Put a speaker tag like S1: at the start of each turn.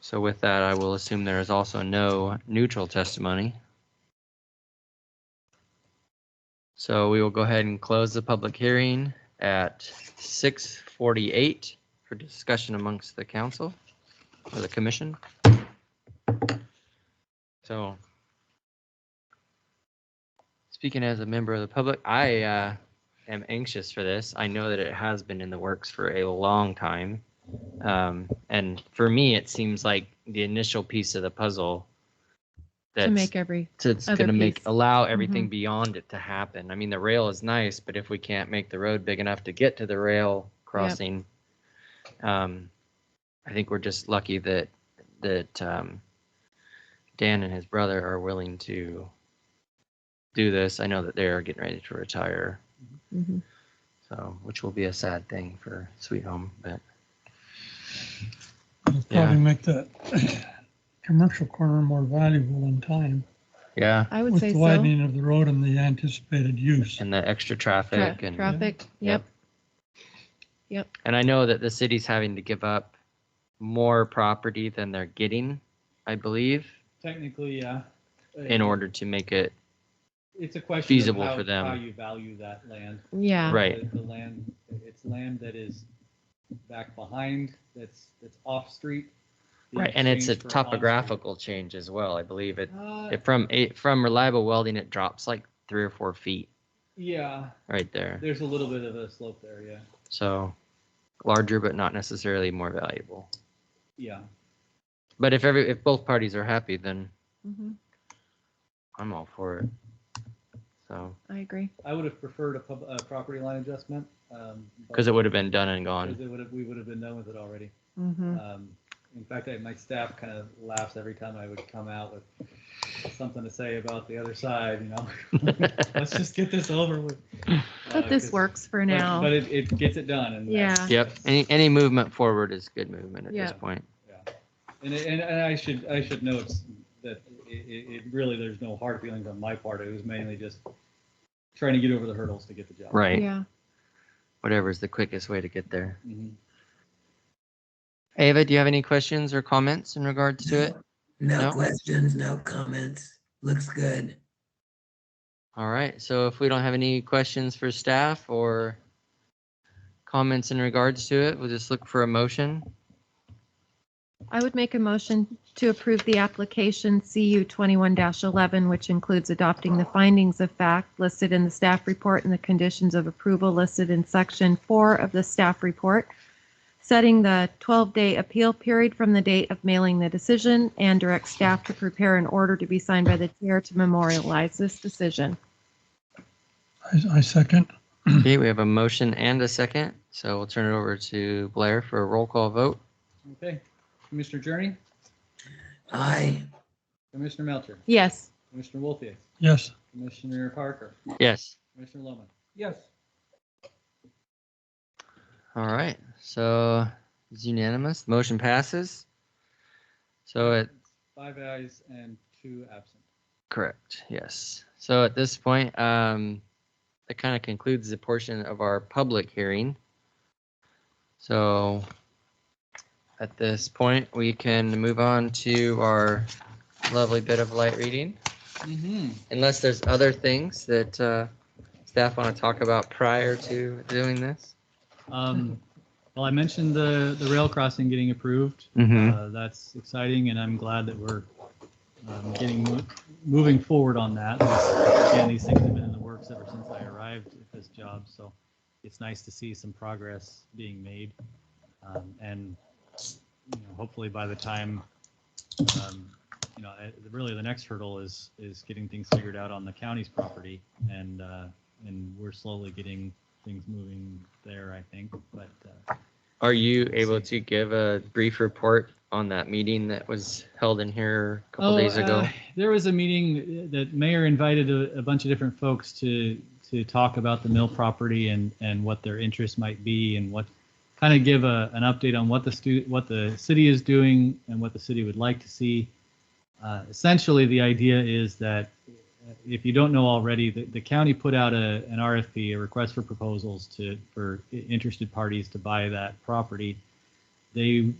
S1: So with that, I will assume there is also no neutral testimony. So we will go ahead and close the public hearing at 6:48 for discussion amongst the council or the commission. So speaking as a member of the public, I uh, am anxious for this. I know that it has been in the works for a long time. Um, and for me, it seems like the initial piece of the puzzle
S2: to
S1: that's
S2: make every
S1: that's
S2: other
S1: going to make
S2: piece. Mm-hmm.
S1: allow everything beyond it to happen. I mean, the rail is nice, but if we can't make the road big enough to get to the rail crossing, um, I think we're just lucky that that um, Dan and his brother are willing to do this. I know that they are getting ready to retire,
S2: Mhm.
S1: so which will be a sad thing for Sweet Home, but
S3: It'll probably make that commercial corner more valuable in time
S1: yeah,
S2: I would
S3: with
S2: say
S3: the
S2: so.
S3: widening of the road and the anticipated use.
S1: and the extra
S2: Tra-
S1: traffic and
S2: Traffic, yep. Yep.
S1: And I know that the city's having to give up more property than they're getting, I believe,
S4: Technically, yeah. Uh,
S1: in order to make it
S4: It's a question. of
S1: feasible
S4: how-
S1: for them.
S4: How you value that land.
S2: Yeah.
S1: Right.
S4: The- The land, it's land that is back behind, that's, that's off-street. in
S1: right. And it's a
S4: exchange for on-street.
S1: topographical change as well. I believe it,
S4: Uh,
S1: it from it from reliable welding, it drops like three or four feet
S4: Yeah,
S1: right there.
S4: there's a little bit of a slope there, yeah,
S1: So larger, but not necessarily more valuable.
S4: yeah.
S1: But if every if both parties are happy, then
S2: Mhm.
S1: I'm all for it. So
S2: I agree.
S4: I would have preferred a pub, a property line adjustment. um, but-
S1: because it would have been done and gone.
S4: Because it would have, we would have been done with it already.
S2: Mhm.
S1: Mm.
S4: Um, in fact, I, my staff kind of laughs every time I would come out with something to say about the other side, you know? Let's just get this over with.
S2: But
S4: Uh,
S2: this
S4: 'cause-
S2: works for
S4: but-
S2: now.
S4: But it, it gets it done and. that's-
S1: Yep. Any any movement forward is good movement at
S2: Yeah.
S1: this point.
S4: yeah. And, it- and, and I should, I should note that it, it, it really, there's no hard feelings on my part. It was mainly just trying to get over the hurdles to get the job.
S1: Right.
S2: Yeah.
S1: Whatever is the quickest way to get there.
S4: Mhm.
S1: Ava, do you have any questions or comments in regards to it?
S5: No
S1: No?
S5: questions, no comments. Looks good.
S1: All right, so if we don't have any questions for staff or comments in regards to it, we'll just look for a motion.
S2: I would make a motion to approve the application CU 21-11, which includes adopting the findings of fact listed in the staff report and the conditions of approval listed in section four of the staff report, setting the 12-day appeal period from the date of mailing the decision, and direct staff to prepare an order to be signed by the chair to memorialize this decision.
S3: I, I second.
S1: Okay, we have a motion and a second, so we'll turn it over to Blair for a roll call vote.
S4: Okay. Commissioner Journey,
S5: Aye,
S4: Commissioner Melcher,
S2: Yes.
S4: Commissioner Wolfius,
S3: Yes,
S4: Commissioner Parker,
S1: Yes.
S4: Commissioner Loman. Yes.
S1: All right, so it's unanimous, motion passes. So it,
S4: Five ayes and two absent.
S1: correct, yes. So at this point, um, that kind of concludes the portion of our public hearing. So at this point, we can move on to our lovely bit of light reading,
S4: Mm-hmm.
S1: unless there's other things that uh, staff want to talk about prior to doing this.
S4: Um, well, I mentioned the, the rail crossing getting approved.
S1: Mm-hmm.
S4: Uh, that's exciting, and I'm glad that we're um, getting mo- moving forward on that. Again, these things have been in the works ever since I arrived at this job, so it's nice to see some progress being made. Um, and you know, hopefully, by the time um, you know, I- really the next hurdle is is getting things figured out on the county's property, and uh, and we're slowly getting things moving there. I think, but. Uh,
S1: Are you able to give a brief report on that meeting that was held in here a couple
S4: Oh,
S1: days ago?
S4: uh, there was a meeting that mayor invited a, a bunch of different folks to to talk about the mill property and and what their interest might be and what kind of give a, an update on what the stu- what the city is doing and what the city would like to see. Uh, essentially, the idea is that uh, if you don't know already, the, the county put out a, an RFP, a request for proposals to for i- interested parties to buy that property. They